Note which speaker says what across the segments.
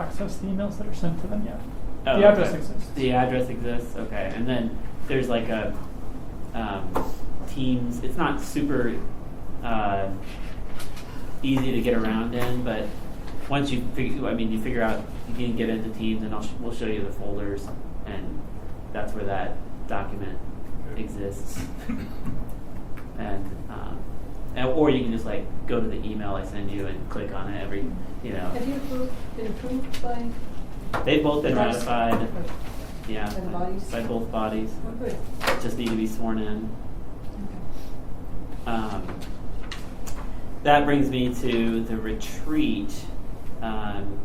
Speaker 1: access the emails that are sent to them yet.
Speaker 2: Oh,
Speaker 1: the address
Speaker 2: okay.
Speaker 1: exists.
Speaker 2: The address exists. Okay, and then there's like a um, Teams. It's not super uh, easy to get around in, but once you figure, I mean, you figure out you can get into Teams, and I'll sh- we'll show you the folders, and that's where that document
Speaker 3: Okay.
Speaker 2: exists. and um, and- or you can just like go to the email I send you and click on it every, you know.
Speaker 4: Have you approved, been approved by,
Speaker 2: They've both been
Speaker 4: That's-
Speaker 2: ratified. Yeah,
Speaker 4: And
Speaker 2: by-
Speaker 4: bodies?
Speaker 2: by both bodies.
Speaker 4: oh, good.
Speaker 2: Just need to be sworn in.
Speaker 4: Okay.
Speaker 2: Um, that brings me to the retreat. Um,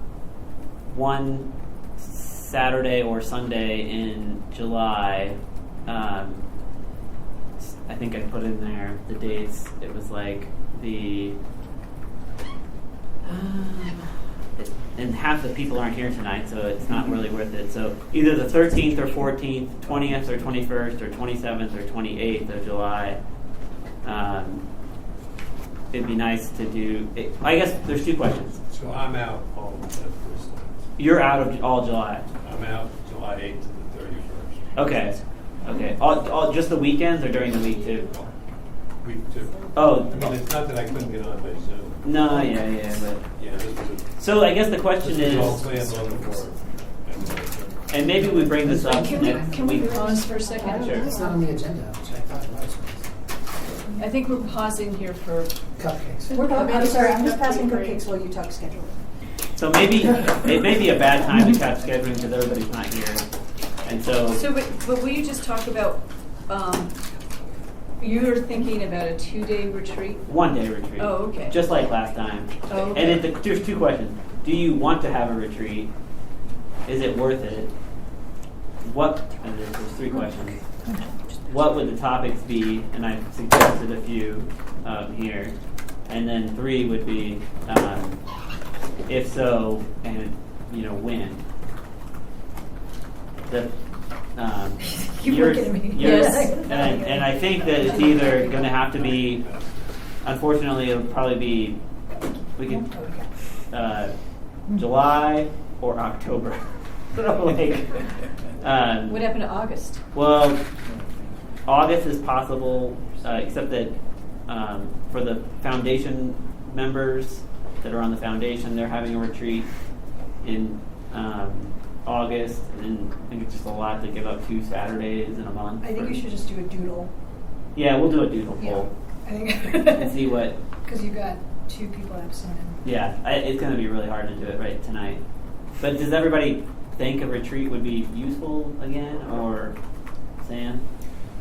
Speaker 2: one Saturday or Sunday in July. Um, s- I think I put in there the dates. It was like the. Um, it- and half the people aren't here tonight, so it's not really worth it. So either the 13th or 14th, 20th or 21st, or 27th or 28th of July. Um, it'd be nice to do. It, I guess there's two questions.
Speaker 3: So I'm out all of that first time.
Speaker 2: You're out of all July.
Speaker 3: I'm out July 8th to the 31st.
Speaker 2: Okay. Okay. All, all, just the weekends or during the week too?
Speaker 3: Week two.
Speaker 2: Oh,
Speaker 3: I mean, it's not that I couldn't get on by Zoom.
Speaker 2: no, yeah, yeah. But,
Speaker 3: Yeah, this was,
Speaker 2: so I guess the
Speaker 3: a- this
Speaker 2: question
Speaker 3: was all
Speaker 2: is,
Speaker 3: planned on the board. And, uh,
Speaker 2: and maybe we bring this up
Speaker 4: Can
Speaker 2: next
Speaker 4: we, can we
Speaker 2: week.
Speaker 4: pause for a second?
Speaker 2: Sure.
Speaker 5: It's not on the agenda, which I thought it was.
Speaker 4: I think we're pausing here for,
Speaker 5: Cupcakes.
Speaker 6: We're
Speaker 4: I
Speaker 6: going,
Speaker 4: mean,
Speaker 6: I'm sorry,
Speaker 4: we're
Speaker 6: I'm just
Speaker 4: gonna
Speaker 6: passing
Speaker 4: break.
Speaker 6: cupcakes while you talk schedule.
Speaker 2: So maybe it may be a bad time to cut scheduling because everybody's not here, and
Speaker 4: so,
Speaker 2: so
Speaker 4: but, but will you just talk about, um, you're thinking about a two-day retreat?
Speaker 2: one day retreat.
Speaker 4: Oh, okay.
Speaker 2: Just like last time.
Speaker 4: Oh,
Speaker 2: And
Speaker 4: okay.
Speaker 2: it, the, there's two questions. Do you want to have a retreat? Is it worth it? What, and there's, there's three questions. What would the topics be? And I suggested a few um, here. And then three would be, um, if so, and you know when. The, um,
Speaker 6: You
Speaker 2: yours-
Speaker 6: look at me.
Speaker 2: yours-
Speaker 4: Yes.
Speaker 2: And, I- and I think that it's either going to have to be
Speaker 3: uh,
Speaker 2: Unfortunately, it'll probably be we could uh, July or October. like, um,
Speaker 4: What happened to August?
Speaker 2: well, August is possible, uh, except that um, for the foundation members that are on the foundation, they're having a retreat in um, August, and I think it's just a lot to give up two Saturdays in a month.
Speaker 6: I think
Speaker 2: for-
Speaker 6: you should just do a doodle.
Speaker 2: Yeah, we'll do a doodle
Speaker 6: Yeah.
Speaker 2: poll
Speaker 6: I think.
Speaker 2: and see what
Speaker 6: Because you got two people absent. and-
Speaker 2: Yeah, I, it's going to be really hard to do it right tonight. But does everybody think a retreat would be useful again, or Sam?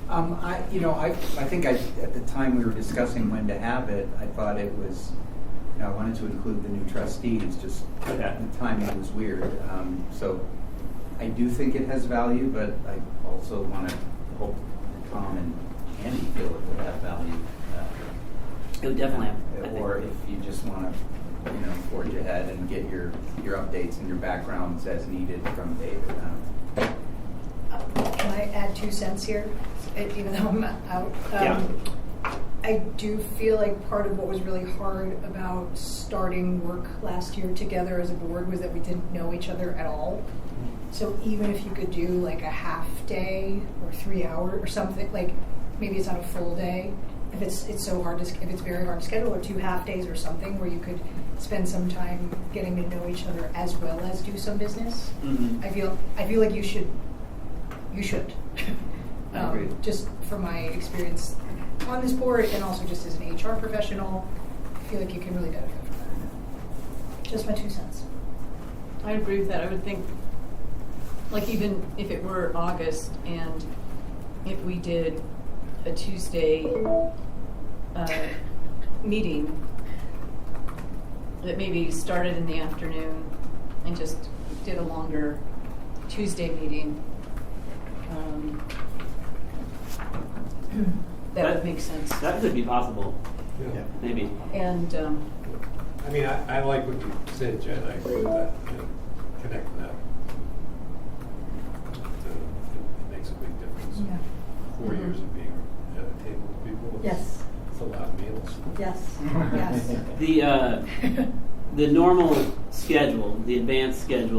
Speaker 7: Um, I, you know, I, I think I, at the time we were discussing when to have it, I thought it was, you know, I wanted to include the new trustees, just
Speaker 2: Okay.
Speaker 7: the timing was weird. Um, so I do think it has value, but I also want to hope that Tom and Andy feel it will have value. uh,
Speaker 2: It would definitely. Have, I think-
Speaker 7: Or if you just want to, you know, forge ahead and get your, your updates and your backgrounds as needed from David. Um,
Speaker 6: Can I add two cents here, Eh, even though I'm out?
Speaker 2: Yeah.
Speaker 6: Um, I do feel like part of what was really hard about starting work last year together as a board was that we didn't know each other at all. So even if you could do like a half day or three hour or something, like maybe it's not a full day. If it's it's so hard to sch- if it's very hard to schedule, or two half days or something where you could spend some time getting to know each other as well as do some business.
Speaker 2: Mhm.
Speaker 6: I feel I feel like you should you should. Um,
Speaker 2: I agree.
Speaker 6: Just from my experience on this board and also just as an HR professional, I feel like you can really benefit from that. Just my two cents.
Speaker 4: I agree with that. I would think, like, even if it were August and if we did a Tuesday uh, meeting that maybe started in the afternoon and just did a longer Tuesday meeting, um, that would make sense.
Speaker 2: That could be possible,
Speaker 3: yeah.
Speaker 2: maybe.
Speaker 4: And, um,
Speaker 3: I mean, I, I like what you said, Jen, I agree with that, you know, connecting that. So It it makes a big difference. Four
Speaker 4: Mhm.
Speaker 3: years of being at a table with people. it's-
Speaker 6: Yes.
Speaker 3: It's a lot of meals.
Speaker 6: Yes. Yes.
Speaker 2: The uh, the normal schedule, the advanced schedule